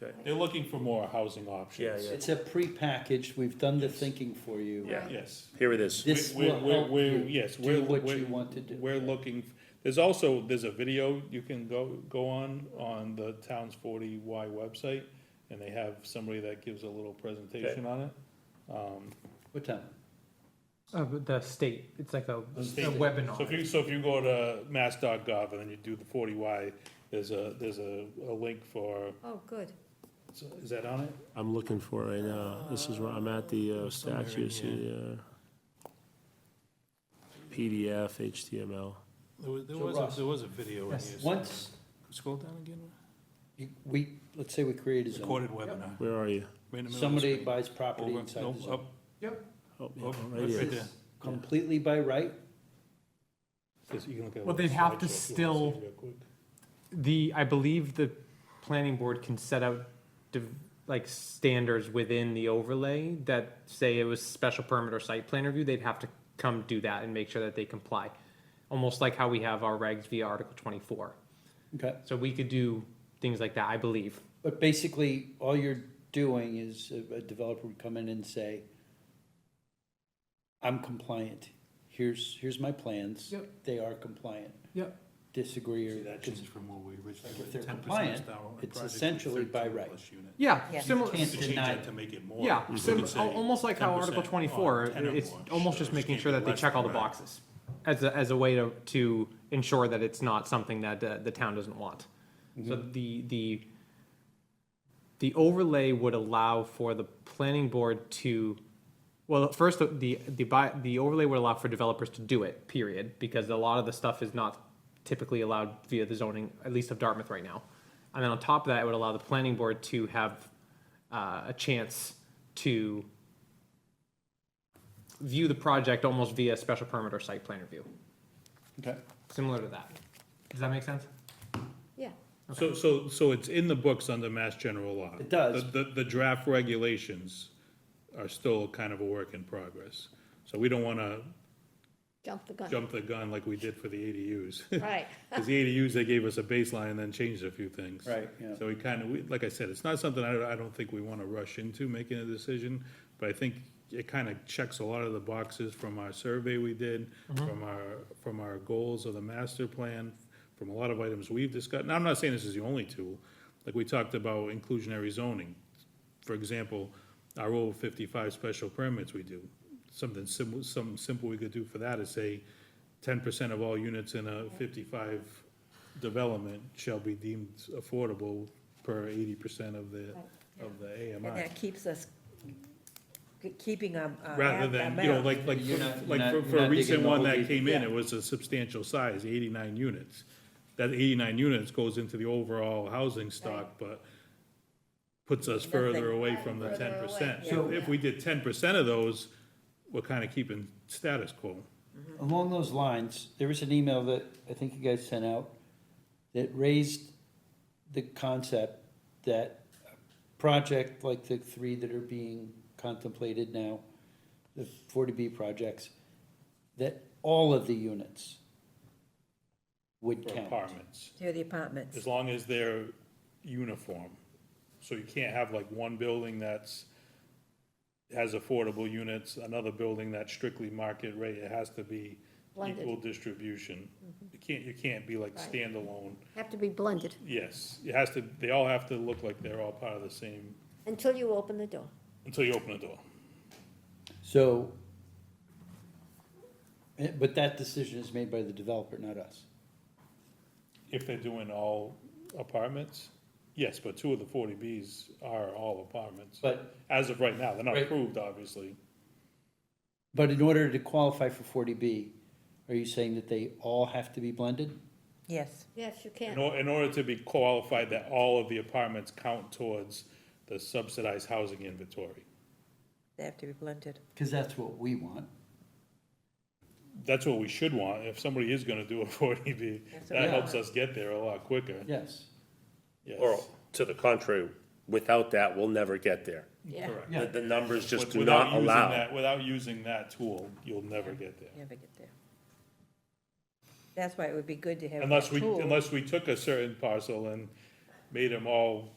Okay. They're looking for more housing options. Yeah, It's a prepackaged, we've done the thinking for you. Yeah. Yes. Here it is. This We're- will we're- help we're- you yes, do we're- what we're- you want to do. We're looking, there's also, there's a video you can go, go on, on the town's forty Y website, and they have somebody that gives a little presentation on it. Um, What time? Of the state, it's like a, a state- So if webinar. you, so if you go to mass.gov and then you do the forty Y, there's a, there's a, a link for, Oh, good. so is that on it? I'm looking for it right now. This is where I'm at the uh, statue, see, uh, PDF, HTML. There was, there So was, Russ. a- there was a video in Yes. here. Once Scroll down again. you- we, let's say we create a zone, Recorded webinar. Where are you? Right in the middle of the somebody screen. buys property Over- inside no, the zone. up, Oh, yeah, up, right right here. there. Completely by right, Just- you can look at a Well, they'd little have slideshow if to you wanna see still- it real quick. The, I believe the planning board can set out div- like standards within the overlay that say it was special permit or site plan review, they'd have to come do that and make sure that they comply. Almost like how we have our regs via Article twenty-four. okay? So we could do things like that, I believe. But basically, all you're doing is a a developer would come in and say, I'm compliant. Here's, here's my plans. Yep. They are compliant. Yep. Disagree See, or. that changed from what we originally. if they're 10% compliant, down on the it's project, essentially by 13 right. plus unit. Yeah, Yeah. similar, You To change Deny that it. to make it more. yeah, you could sim- say al- almost like how 10% Article twenty-four, on 10 or it's more. almost So just it making can't sure be that they less check all the than that. boxes. As a, as a way to, to ensure that it's not something that uh, the town doesn't want. So Mm-hmm. the, the, the overlay would allow for the planning board to, well, first, the, the, the bi- the overlay would allow for developers to do it, period, because a lot of the stuff is not typically allowed via the zoning, at least of Dartmouth right now. And then on top of that, it would allow the planning board to have uh, a chance to view the project almost via special permit or site plan review, Okay. similar to that. Does that make sense? Yeah. So, so, so it's in the books under mass general law? It does. The, the- the draft regulations are still kind of a work in progress. So we don't wanna Jump the gun. jump the gun like we did for the ADUs. Right. Cause the ADUs, they gave us a baseline and then changed a few things. Right, yeah. So we kinda, we, like I said, it's not something I, I don't think we wanna rush into making a decision, but I think it kinda checks a lot of the boxes from our survey we did, Mm-hmm. from our, from our goals of the master plan, from a lot of items we've discussed, and I'm not saying this is the only tool, like we talked about inclusionary zoning. For example, our over fifty-five special permits we do, something simple, something simple we could do for that is say, ten percent of all units in a fifty-five development shall be deemed affordable per eighty percent of the, of the And AMI. that keeps us, k- keeping a. a Rather a- than, a you know, map. like, like, You're not- you're like not- for, you're for a not recent digging the one whole that deep- came in, yeah. it was a substantial size, eighty-nine units. That eighty-nine units goes into the overall housing stock, but puts us further Nothing. away from the ten Further away, percent. yeah. So if we did ten percent of those, we're kinda keeping status quo. Along those lines, there was an email that I think you guys sent out that raised the concept that a project like the three that are being contemplated now, the forty B projects, that all of the units would for count. apartments, Near the apartments. as long as they're uniform. So you can't have like one building that's, has affordable units, another building that's strictly market rate, it has to be Blended. Mm-hmm. equal distribution. You can't, you can't be like Right. standalone, Have to be blended yes, it has to, they all have to look like they're all part of the same, until you open the door. until you open the door. So, eh, but that decision is made by the developer, not us. If they're doing all apartments, yes, but two of the forty Bs are all apartments. But, As of right now, they're not Right. approved, obviously. but in order to qualify for forty B, are you saying that they all have to be blended? Yes, Yes, you In can. or, in order to be qualified that all of the apartments count towards the subsidized housing inventory. they have to be blended. Because that's what we want. That's what we should want, if somebody is gonna do a forty B, That's what that we helps want. us get there a lot quicker, Yes. yes. Or, to the contrary, without that, we'll never get there. Yeah. Correct. The, the numbers just With- do without not using allow. that- Without using that tool, you'll never get there. Never get there. That's why it would be good to have. Unless that we, tool. unless we took a certain parcel and made them all